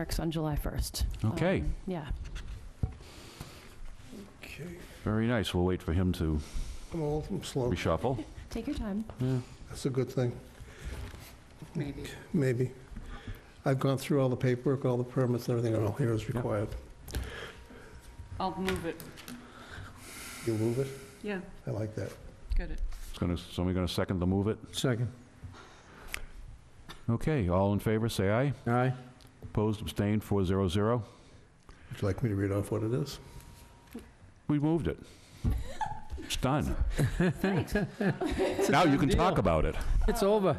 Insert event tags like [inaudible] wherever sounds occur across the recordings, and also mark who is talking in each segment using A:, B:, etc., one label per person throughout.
A: works on July 1st.
B: Okay.
A: Um, Yeah.
C: Okay,
B: Very nice. We'll wait for him to
C: I'm old, I'm slow.
B: reshuffle.
A: Take your time.
C: That's a good thing,
D: maybe.
C: maybe. I've gone through all the paperwork, all the permits, and everything all here is required.
D: I'll move it.
C: You move it?
D: Yeah,
C: I like that.
D: got it.
B: It's gonna, somebody gonna second the move it?
E: Second.
B: Okay, all in favor, say aye.
E: Aye.
B: Opposed, abstained, 400.
C: Would you like me to read off what it is?
B: We moved it. It's done.
A: Thanks.
B: Now you can talk about it.
E: It's over.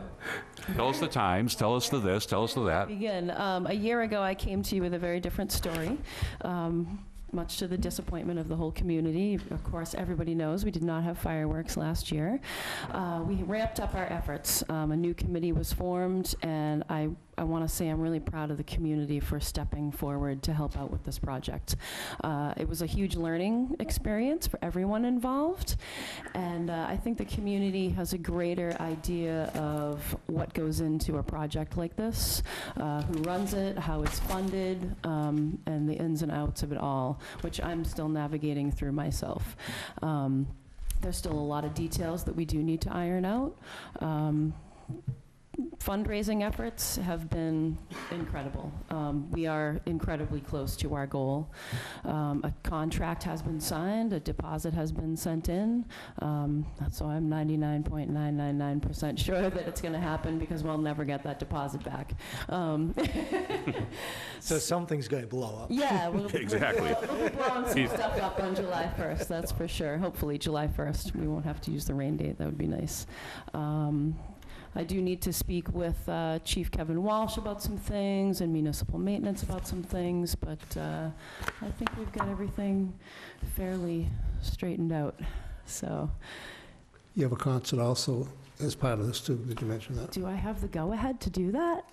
B: Tell us the times, tell us the this, tell us the
A: [laughs]
B: that.
A: Begin. Um, A year ago, I came to you with a very different story, um, much to the disappointment of the whole community. Of course, everybody knows, we did not have fireworks last year. Uh, We ramped up our efforts. Um, A new committee was formed, and I, I want to say I'm really proud of the community for stepping forward to help out with this project. Uh, It was a huge learning experience for everyone involved, and uh, I think the community has a greater idea of what goes into a project like this uh, who runs it, how it's funded, um, and the ins and outs of it all, which I'm still navigating through myself. Um, There's still a lot of details that we do need to iron out. Um, Fundraising efforts have been incredible. Um, We are incredibly close to our goal. Um, A contract has been signed, a deposit has been sent in, um, so I'm 99.999% sure [laughs] that it's going to happen because we'll never get that deposit back. Um,
F: So something's going to blow up.
A: yeah, we'll,
B: [laughs] Exactly.
A: we'll be blowing some stuff up on July 1st, that's for sure. Hopefully, July 1st, we won't have to use the rain date, that would be nice. Um, I do need to speak with uh, Chief Kevin Walsh about some things and municipal maintenance about some things, but uh, I think we've got everything fairly straightened out, so.
C: You have a concert also as part of this too, did you mention that?
A: Do I have the go-ahead to do that?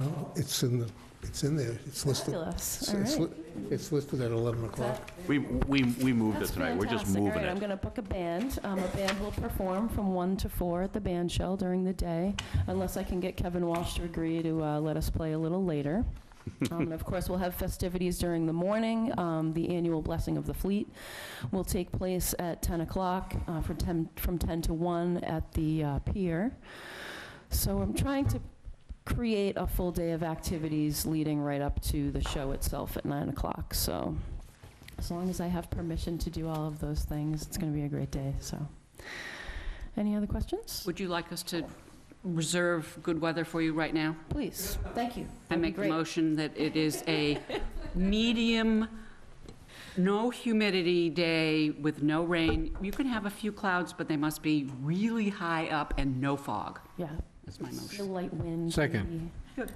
C: No, it's in the, it's in there, it's listed.
A: Fabulous, all
C: It's
A: right.
C: li- It's listed at 11 o'clock.
B: We, we, we moved it
A: That's
B: tonight. We're just
A: fantastic. All
B: moving
A: right, I'm
B: it.
A: going to book a band. Um, A band will perform from 1 to 4 at the band shell during the day, unless I can get Kevin Walsh to agree to uh, let us play a little
B: [laughs]
A: later. Um, And of course, we'll have festivities during the morning. Um, The annual Blessing of the Fleet will take place at 10 o'clock uh, for 10 from 10 to 1 at the uh, pier. So I'm trying to create a full day of activities leading right up to the show itself at 9 o'clock, so as long as I have permission to do all of those things, it's going to be a great day, so. Any other questions?
D: Would you like us to reserve good weather for you right now?
A: Please, thank you.
D: I
A: That'd be
D: make the
A: great.
D: motion that it is a medium, no humidity day with no rain. You can have a few clouds, but they must be really high up and no fog.
A: Yeah,
D: That's my
A: the
D: motion.
A: light wind.
E: Second.
A: maybe.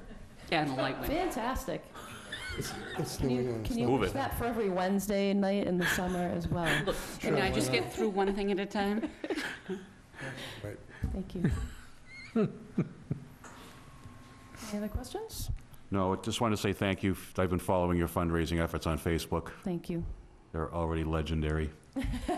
D: And a light wind.
A: Fantastic.
C: It's
A: Can
C: New
A: you,
C: England.
A: can you
B: uh, Move
A: wish
B: it.
A: that for every Wednesday night in the summer as well?
D: Look, can
C: Sure,
D: I
C: why
D: just
C: not?
D: get through one thing at a time?
A: Thank you. Any other questions?
B: No, I just wanted to say thank you. I've been following your fundraising efforts on Facebook.
A: Thank you.
B: They're
A: [laughs]
B: already legendary.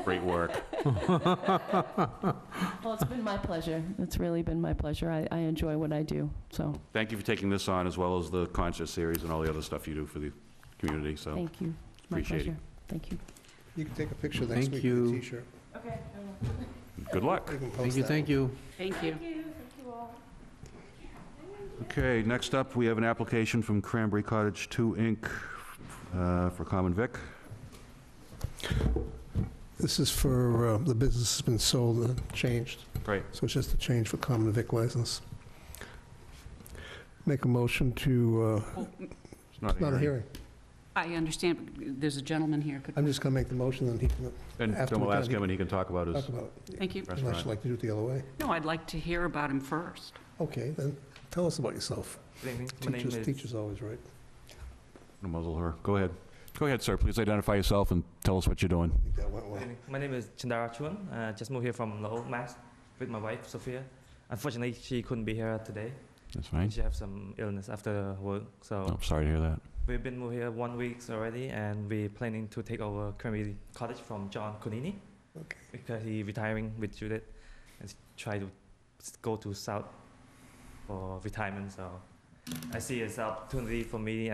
B: Great work.
A: Well, it's been my pleasure. It's really been my pleasure. I, I enjoy what I do, so,
B: Thank you for taking this on, as well as the concert series and all the other stuff you do for the community, so
A: thank you. My
B: appreciate
A: pleasure.
B: it.
A: Thank you.
C: You can take a picture next
E: Thank
C: week with a
E: you.
C: t-shirt.
A: Okay.
B: Good luck.
C: You can post
E: Thank you,
C: that
E: thank
C: one.
E: you.
D: Thank you.
B: Okay, next up, we have an application from Cranberry Cottage 2, Inc., uh, for Common Vic.
C: This is for, uh, the business has been sold and changed.
B: Right.
C: So it's just a change for common vic license. Make a motion to, uh,
B: It's not
C: not a hearing.
D: I understand, there's a gentleman here. Could-
C: I'm just going to make the motion and he can
B: And
C: After
B: then we'll
C: we're
B: ask
C: done,
B: him, and he can talk about his
C: talk about it.
D: Thank you.
C: Unless
B: restaurant.
C: you'd like to do it the other way.
D: No, I'd like to hear about him first.
C: Okay, then tell us about yourself.
F: Good evening. My name
C: Teacher's,
F: is-
C: teacher's always right.
B: Muzzle her. Go ahead. Go ahead, sir. Please identify yourself and tell us what you're doing.
C: I think that went well.
F: Good evening. My name is Chandara Chuan. Uh, just moved here from Lowell, Mass, with my wife Sophia. Unfortunately, she couldn't be here today.
B: That's fine.
F: She have some illness after work, Uh, so
B: Oh, sorry to hear that.
F: we've been moved here one week already, and we're planning to take over Cranberry Cottage from John Conini
C: Okay.
F: because he retiring with Judith and s- try to s- go to South for retirement. So I see it's an opportunity for me